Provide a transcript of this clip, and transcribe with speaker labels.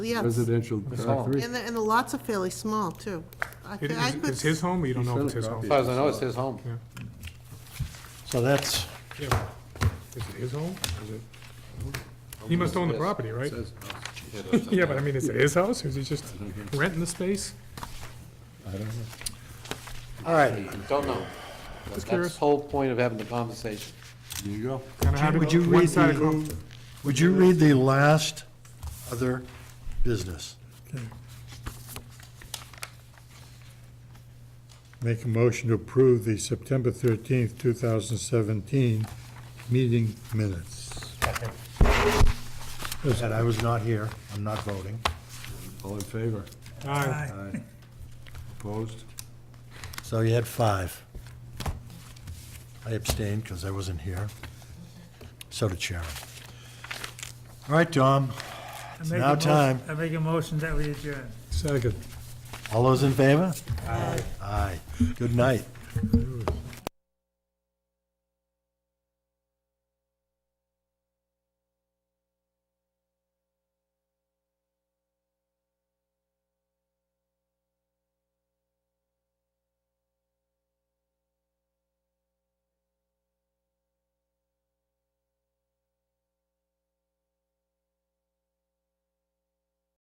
Speaker 1: Yes,
Speaker 2: residential. uh, three.
Speaker 1: and the, and the lots are fairly small, too. I
Speaker 3: It
Speaker 1: thi- I
Speaker 3: is
Speaker 1: could,
Speaker 3: it's his home, or you don't know if it's his home?
Speaker 2: As
Speaker 4: far as I know, it's his home.
Speaker 5: So that's,
Speaker 3: Yeah. Is it his home? Is it- He must own the property, right? Yeah, but I mean, is it his house, or is he just renting the space?
Speaker 5: all right.
Speaker 4: Don't know. That's the
Speaker 3: curious.
Speaker 4: whole point of having the conversation.
Speaker 2: There you go.
Speaker 3: Kinda hard to
Speaker 5: Would
Speaker 3: go
Speaker 5: you read
Speaker 3: one-sided
Speaker 5: the, would you read the last other business?
Speaker 6: Make a motion to approve the September 13th, 2017 meeting minutes.
Speaker 5: And I was not here, I'm not voting.
Speaker 2: All in favor?
Speaker 3: com- Aye.
Speaker 2: Aye. Opposed?
Speaker 5: So you had five. I abstained because I wasn't here. So did Sharon. All right, Tom,
Speaker 7: I make a
Speaker 5: now
Speaker 7: motion-
Speaker 5: time.
Speaker 7: I make a motion that we adjourn.
Speaker 2: Second.
Speaker 5: all those in favor? Aye. Aye, good night.